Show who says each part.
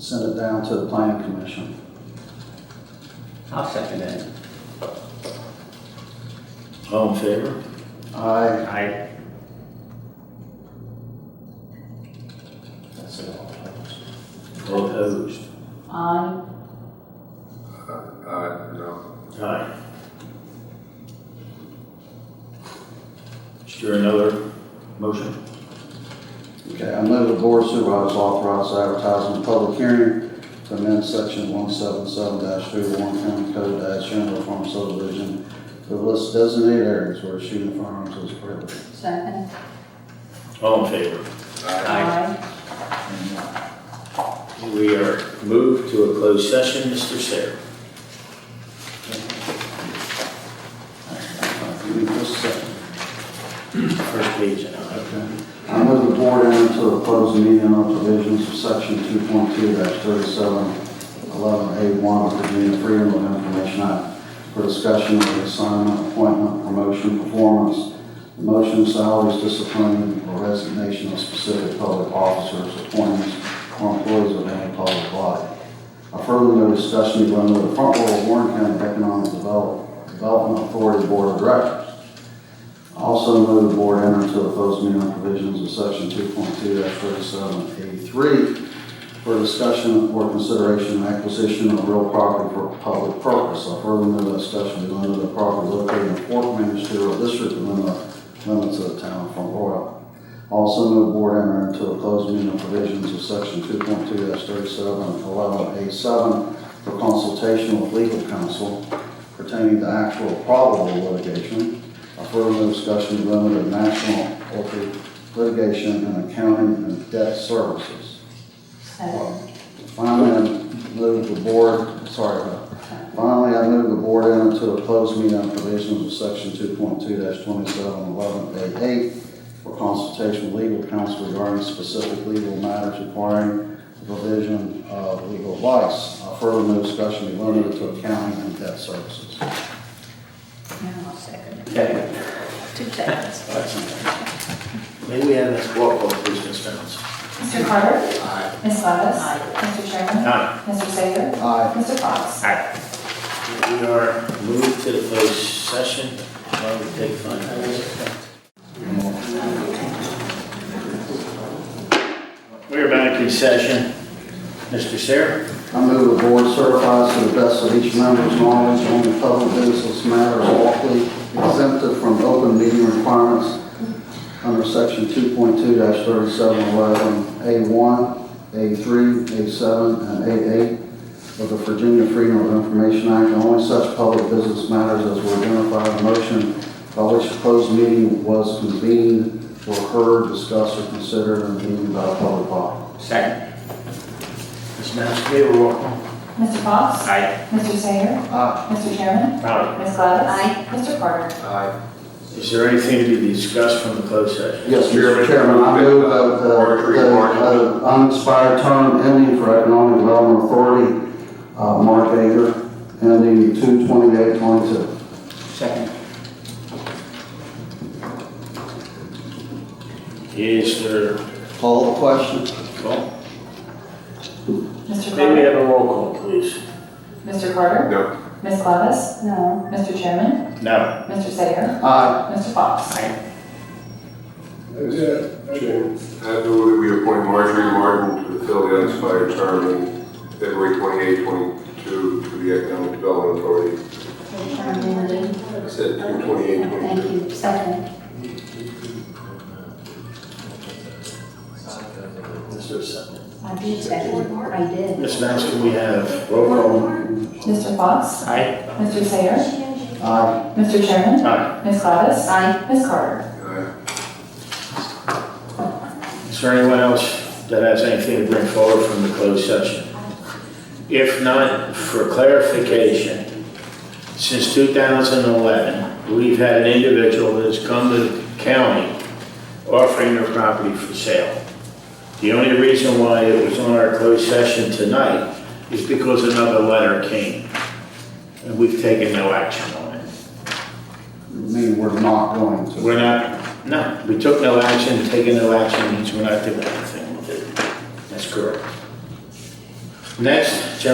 Speaker 1: send it down to the planning commission.
Speaker 2: I'll second that.
Speaker 3: All in favor?
Speaker 1: I,
Speaker 2: I,
Speaker 3: That's it. All opposed?
Speaker 4: Aye.
Speaker 5: Aye, no.
Speaker 3: Aye. Is there another motion?
Speaker 1: okay, I move the board supervisors authorize advertising a public hearing to amend section one seven seven dash three oh one county code dash general farm subdivision to list designated areas where shooting firearms is prohibited.
Speaker 4: Second.
Speaker 3: All in favor?
Speaker 5: Aye.
Speaker 2: Aye.
Speaker 3: We are moved to a closed session, Mr. Sarah.
Speaker 1: Give me just a second.
Speaker 3: First page, and I.
Speaker 1: I move the board into a closed meeting on provisions of section 2.2-3711A1 of the Virginia Freedom of Information Act for discussion of the assignment, appointment, promotion, performance, motion, salaries, discipline, or resignation of specific public officers, appointments, or employees of any public body. I further no discussion be limited to the Front Royal Warren County Economic Develop- Development Authority Board of Directors. Also move the board enter into a closed meeting on provisions of section two point two thirty-seven eighty-three for discussion or consideration of acquisition of real property for public purpose. I further move that discussion be limited to property located in the Fort Ministerial District within the limits of the town of Front Royal. Also move the board enter into a closed meeting on provisions of section two point two thirty-seven eleven A seven for consultation with legal counsel pertaining to actual probable litigation a further discussion of limited national corporate litigation and accounting and debt services.
Speaker 4: Second.
Speaker 1: Finally, I move the board, sorry, uh, finally, I move the board into a closed meeting on provisions of section two point two twenty-seven eleven eight eight for consultation with legal counsel regarding specific legal matters requiring the provision of legal advice. A further move discussion be limited to accounting and debt services.
Speaker 4: Now I'll second it.
Speaker 2: Okay.
Speaker 4: Two seconds.
Speaker 3: May we have this roll call, please, Ms. Reynolds?
Speaker 6: Mr. Carter? Ms. Gladys? Mr. Sherman?
Speaker 3: Aye.
Speaker 6: Mr. Sager?
Speaker 1: Aye.
Speaker 6: Mr. Fox?
Speaker 3: We are moved to the closed session. Why don't we take five minutes? We are back in session. Mr. Sarah?
Speaker 1: I move the board certifies to the best of each member's knowledge on the public business matters lawfully exempted from open meeting requirements under section 2.2-3711A1, A3, A7, and A8 of the Virginia Freedom of Information Act, and only such public business matters as were identified in the motion by which the closed meeting was convened or heard, discussed, or considered in the meeting by a public body.
Speaker 2: Second.
Speaker 3: Ms. Maskey, we have a roll call.
Speaker 6: Mr. Fox?
Speaker 2: Aye.
Speaker 6: Mr. Sager?
Speaker 1: Aye.
Speaker 6: Mr. Sherman?
Speaker 2: Aye.
Speaker 6: Ms. Gladys? Mr. Carter?
Speaker 5: Aye.
Speaker 3: Is there anything to be discussed from the closed session?
Speaker 1: Yes, Mr. Chairman, I move that the- the the unexpired term ending for Economic Development Authority, uh, Mark Ager, ending 2/28/22.
Speaker 2: Second.
Speaker 3: Is there,
Speaker 1: Call the question.
Speaker 3: well,
Speaker 6: Mr.
Speaker 3: may we
Speaker 6: Carter?
Speaker 3: have a roll call, please?
Speaker 6: Mr. Carter?
Speaker 5: No.
Speaker 6: Ms. Gladys?
Speaker 4: No.
Speaker 6: Mr. Sherman?
Speaker 3: No.
Speaker 6: Mr. Sager?
Speaker 1: Aye.
Speaker 6: Mr. Fox?
Speaker 5: Chair, I move that we appoint Marjorie Martin to fill the unexpired term in February 28, 22 to the Economic Development Authority. I said two twenty-eight,
Speaker 4: Thank
Speaker 5: twenty-two.
Speaker 4: you, second.
Speaker 3: Is there a second?
Speaker 4: I did second, I did.
Speaker 3: Ms. Maskey, we have roll call.
Speaker 6: Mr. Fox?
Speaker 3: Aye.
Speaker 6: Mr. Sager?
Speaker 1: Aye.
Speaker 6: Mr. Sherman?
Speaker 3: Aye.
Speaker 6: Ms. Gladys?
Speaker 4: Aye.
Speaker 6: Ms. Carter?
Speaker 5: Aye.
Speaker 3: Is there anyone else that has anything to bring forward from the closed session? If not, for clarification, since 2011, we've had an individual that's come to the county offering their property for sale. The only reason why it was on our closed session tonight is because another letter came, and we've taken no action on it.
Speaker 1: Me, we're not going to.
Speaker 3: We're not, no, we took no action, taking no action means we're not doing anything with it. That's correct. Next, General